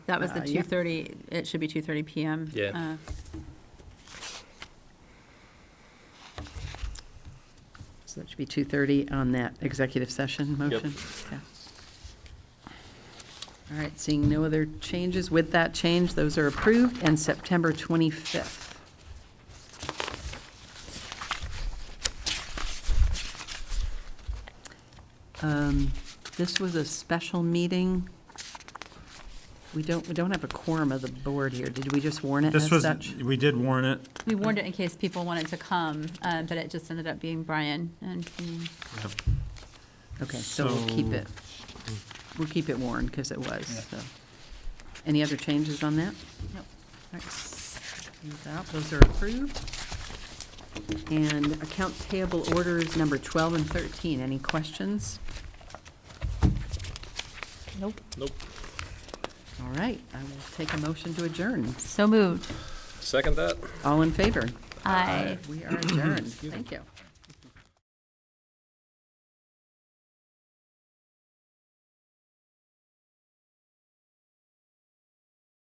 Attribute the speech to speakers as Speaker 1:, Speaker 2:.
Speaker 1: That was the
Speaker 2: Uh, yeah.
Speaker 1: 2:30, it should be 2:30 PM.
Speaker 3: Yeah.
Speaker 1: uh,
Speaker 2: So that should be 2:30 on that executive session motion? Okay. All right, seeing no other changes, with that change, those are approved, and September 25th. Um, This was a special meeting. We don't, we don't have a quorum of the board here. Did we just warn it as
Speaker 4: This was,
Speaker 2: such?
Speaker 4: we did warn it.
Speaker 1: We warned it in case people wanted to come, uh, but it just ended up being Brian and me.
Speaker 2: Okay, so we'll keep
Speaker 4: So-
Speaker 2: it, we'll keep it worn, because it was, so. Any other changes on that?
Speaker 1: Nope.
Speaker 2: Alright, s- move out. Those are approved. And account payable orders number 12 and 13, any questions?
Speaker 1: Nope.
Speaker 3: Nope.
Speaker 2: All right, I will take a motion to adjourn.
Speaker 1: So moved.
Speaker 3: Second that?
Speaker 2: All in favor?
Speaker 1: Aye.
Speaker 2: We are adjourned. Thank you.